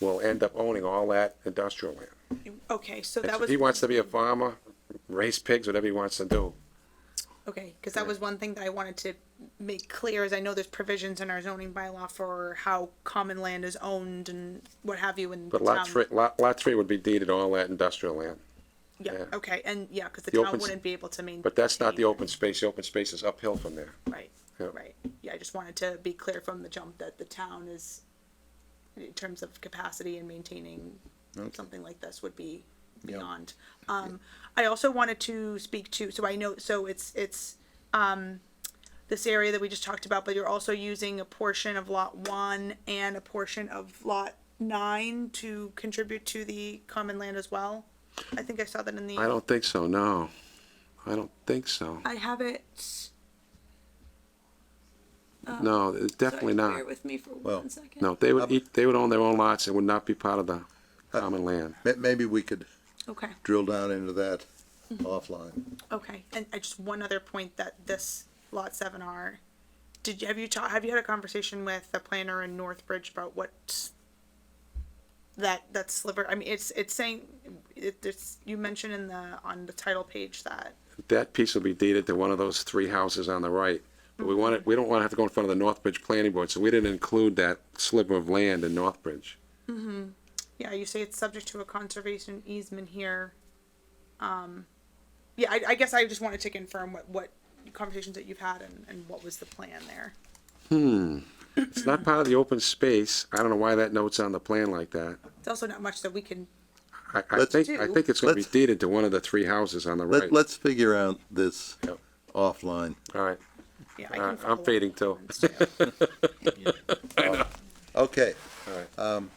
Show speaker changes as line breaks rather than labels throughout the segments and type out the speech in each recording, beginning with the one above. will end up owning all that industrial land.
Okay, so
And
that
so
was.
He wants to be a farmer, raise pigs, whatever he wants to do.
Okay, because that was one thing that I wanted to make clear is I know there's provisions in our zoning bylaw for how common land is owned and what have you and.
But
the
lot
town-
three, lot, lot three would be deeded all that industrial land.
Yeah,
yeah.
okay, and yeah, because the
The
town
open s-
wouldn't be able to maintain.
But that's not the open space. The open space is uphill from there.
Right,
Yeah.
right. Yeah, I just wanted to be clear from the jump that the town is, in terms of capacity and maintaining something like this would be beyond. Um, I also wanted to speak to, so I know, so it's, it's, um, this area that we just talked about, but you're also using a portion of lot one and a portion of lot nine to contribute to the common land as well? I think I saw that in the.
I don't think so, no. I don't think so.
I have it, Oh.
No, it's definitely
Sorry,
not.
Bear with me for
Well,
one second.
No, they would eat, they would own their own lots. It would not be part of the common land.
Ma- Maybe we could
okay.
drill down into that offline.
Okay, and I just one other point that this lot seven R, did you, have you ta- have you had a conversation with the planner in Northbridge about what that that sliver? I mean, it's it's saying it, it's you mentioned in the on the title page that
That piece will be deeded to one of those three houses on the right. But we want it, we don't want to have to go in front of the Northbridge Planning Board, so we didn't include that sliver of land in Northbridge.
yeah you say it's subject to a conservation easement here. Um, yeah, I, I guess I just wanted to confirm what what conversations that you've had and and what was the plan there.
It's not part of the open space. I don't know why that note's on the plan like that.
It's also not much that we can.
I, I
Let's-
think, I think it's gonna be
Let's-
deeded to one of the three houses on the right.
Let, let's figure out this
Yep.
offline.
All right,
Yeah, I
all
can
right, Uh, I'm
follow up.
fading too.
Okay,
All right.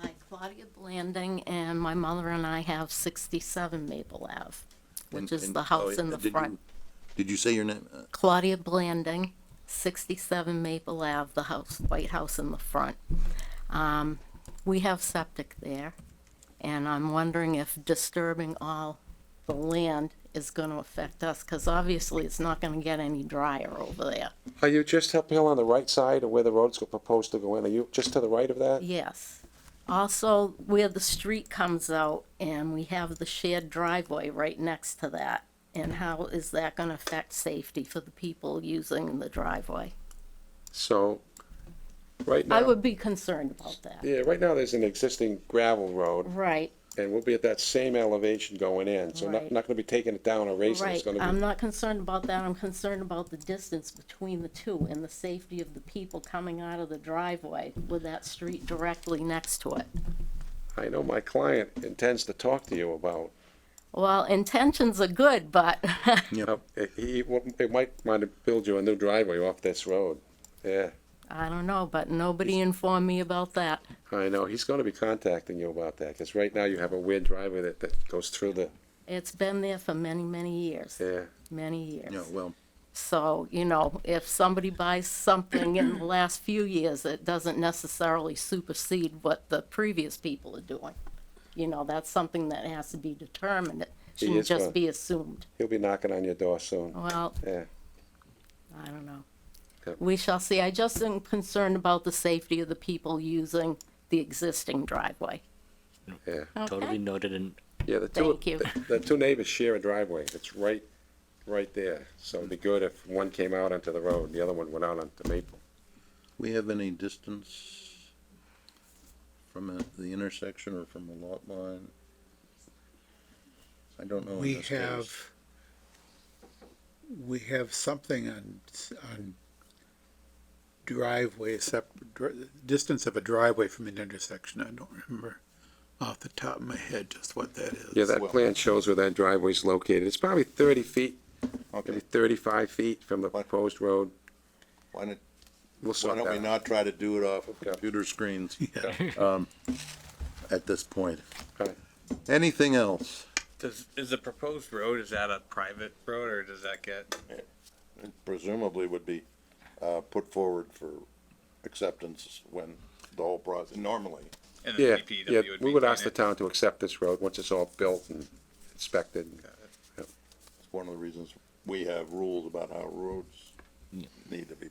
Hi, Claudia Blanding, and my mother and I have 67 Maple Ave,
And-
which is
and-
the
oh,
house in the
did you-
front.
Did you say your name? Uh,
Claudia Blanding, 67 Maple Ave, the house, white house in the front. Um, We have septic there, and I'm wondering if disturbing all the land is going to affect us, because obviously it's not going to get any drier over there.
Are you just uphill on the right side of where the road's go- proposed to go in? Are you just to the right of that?
Yes. Also, where the street comes out and we have the shared driveway right next to that. And how is that gonna affect safety for the people using the driveway?
So, right
I
now,
would be concerned about that.
yeah, right now there's an existing gravel road
Right,
and we'll be at that same elevation going in. So not,
Right.
not gonna be taking it down or raising it. It's
right. um,
gonna
I'm
be,
not concerned about that. I'm concerned about the distance between the two and the safety of the people coming out of the driveway with that street directly next to it.
I know my client intends to talk to you about,
Well, intentions are good, but
Yep, it- he, it might want to build you a new driveway off this road. Yeah,
I don't know, but nobody informed me about that.
I know. He's gonna be contacting you about that because right now you have a weird driveway that, that goes through the,
It's been there for many, many years.
yeah.
many years.
No, well,
So, you know, if somebody buys something in the last few years, it doesn't necessarily supersede what the previous people are doing. You know, that's something that has to be determined. It shouldn't
is uh, gone.
just be assumed.
He'll be knocking on your door soon.
Oh.
Well,
Yeah.
I don't know.
Yep.
We shall see. I just am concerned about the safety of the people using the existing driveway.
Yeah.
Okay?
Totally noted and
Yeah, the two,
Thank you.
the- the two neighbors share a driveway, it's right, right there, so it'd be good if one came out onto the road, the other one went out onto Maple.
we have any distance from a- the intersection or from a lot line? I don't know. in
We
this case.
have, we have something on, s- on driveway, sep, dri- distance of a driveway from an intersection. I don't remember off the top of my head just what that is.
Yeah, that plan shows where that driveway's located, it's probably thirty feet, maybe
Okay,
thirty-five feet from the
What?
proposed road,
why don't,
we'll
why
sort
don't
that
we
out.
not try to do it off of
Yeah.
computer screens? um, At this point.
Okay.
Anything else?
Does, is the proposed road, is that a private road or does that get,
presumably would be uh, put forward for acceptance when the whole process, normally.
and
Yeah,
the DPW
yeah,
would
we would
maintain
ask the
it?
town to accept this road, once it's all built and inspected.
It's one of the reasons we have rules about how roads need to be